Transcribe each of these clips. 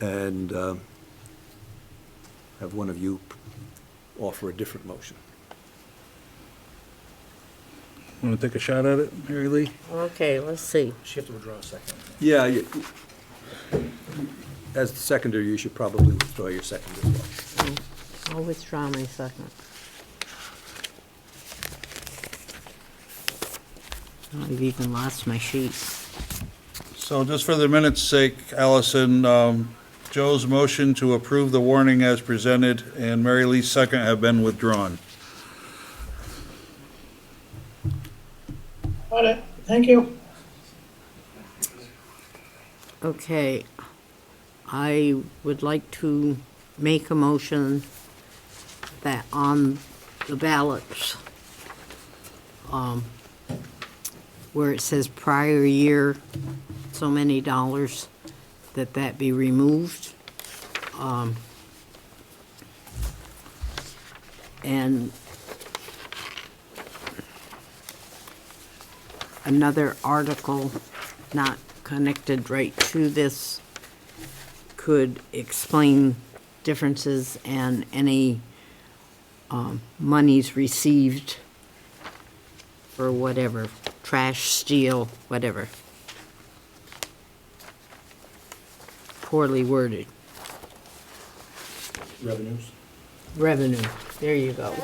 and uh, have one of you offer a different motion. Want to take a shot at it, Mary Lee? Okay, let's see. She have to withdraw a second. Yeah, you- as the seconder, you should probably withdraw your second as well. I'll withdraw my second. I've even lost my sheet. So just for the minute's sake, Allison, um, Joe's motion to approve the warning as presented and Mary Lee's second have been withdrawn. Got it, thank you. Okay. I would like to make a motion that on the ballots, um, where it says prior year, so many dollars, that that be removed. Um, And another article not connected right to this could explain differences and any um, monies received for whatever, trash, steel, whatever. Poorly worded. Revenues. Revenue, there you go.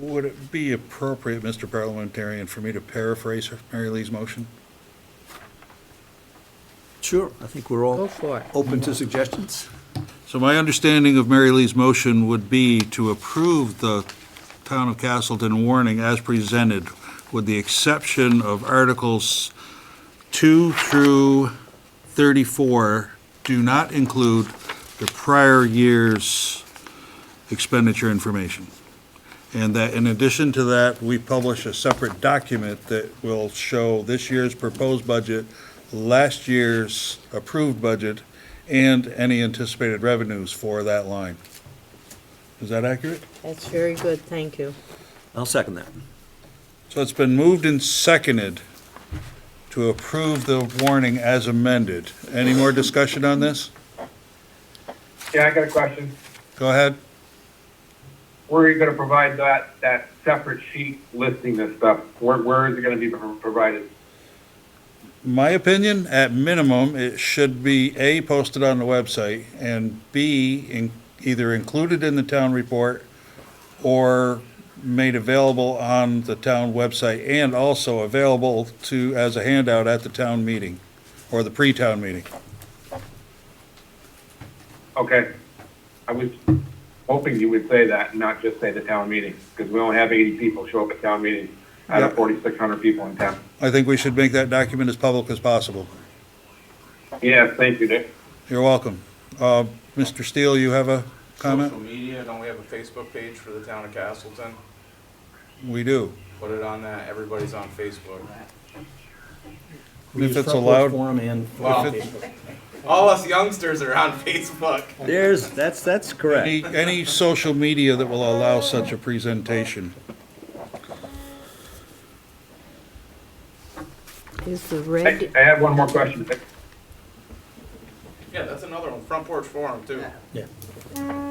Would it be appropriate, Mr. Parliamentarian, for me to paraphrase Mary Lee's motion? Sure, I think we're Go all for it. open to suggestions. So my understanding of Mary Lee's motion would be to approve the Town of Castleton warning as presented, with the exception of Articles 2 through 34 do not include the prior year's expenditure information. And that in addition to that, we publish a separate document that will show this year's proposed budget, last year's approved budget, and any anticipated revenues for that line. Is that accurate? That's very good, thank you. I'll second that. So it's been moved and seconded to approve the warning as amended. Any more discussion on this? Yeah, I got a question. Go ahead. Where are you gonna provide that, that separate sheet listing this stuff? Where, where is it gonna be pro- provided? My opinion, at minimum, it should be A, posted on the website, and B, in, either included in the town report or made available on the town website and also available to, as a handout at the town meeting or the pre-town meeting. Okay, I was hoping you would say that, and not just say the town meeting, because we only have eighty people show up at town meeting out Yeah. of forty-six hundred people in town. I think we should make that document as public as possible. Yeah, thank you, Dick. You're welcome. Uh, Mr. Steele, you have a comment? Social media, don't we have a Facebook page for the town of Castleton? We do. Put it on that, everybody's on Facebook. We If use it's Front Porch allowed. Forum and. Wow. Facebook. All us youngsters are on Facebook. There's, that's, that's correct. Any, any social media that will allow such a presentation. Is the I, red, I have one more question, Dick. Yeah, that's another one, Front Porch Forum too. Yeah.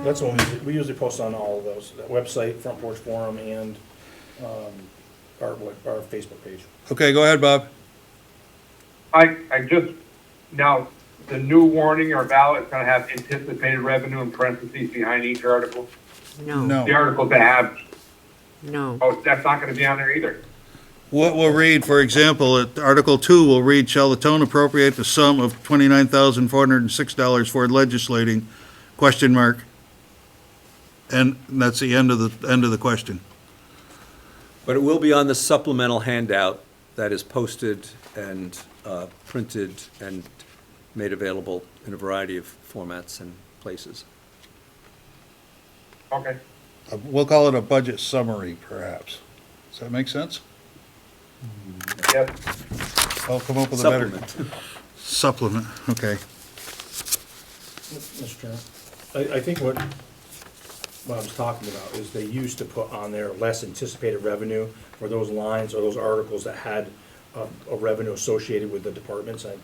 That's what we, usually- we usually post on all of those, that website, Front Porch Forum, and, um, our, web- our Facebook page. Okay, go ahead, Bob. I, I just, now, the new warning or ballot's gonna have anticipated revenue in parentheses behind each article. no, The No. articles that have, no. oh, that's not gonna be on there either. What we'll read, for example, at Article 2, we'll read, "Shall the town appropriate the sum of $29,406 for legislating?" Question mark. And that's the end of the, end of the question. But it will be on the supplemental handout that is posted and uh, printed and made available in a variety of formats and places. Okay, Uh, We'll call it a budget summary, perhaps. Does that make sense? yes. I'll come up with a better. Supplement. Supplement, okay. Mr. Chairman, I, I think what Bob's talking about is they used to put on there less anticipated revenue for those lines or those articles that had a, a revenue um, associated with the departments. I,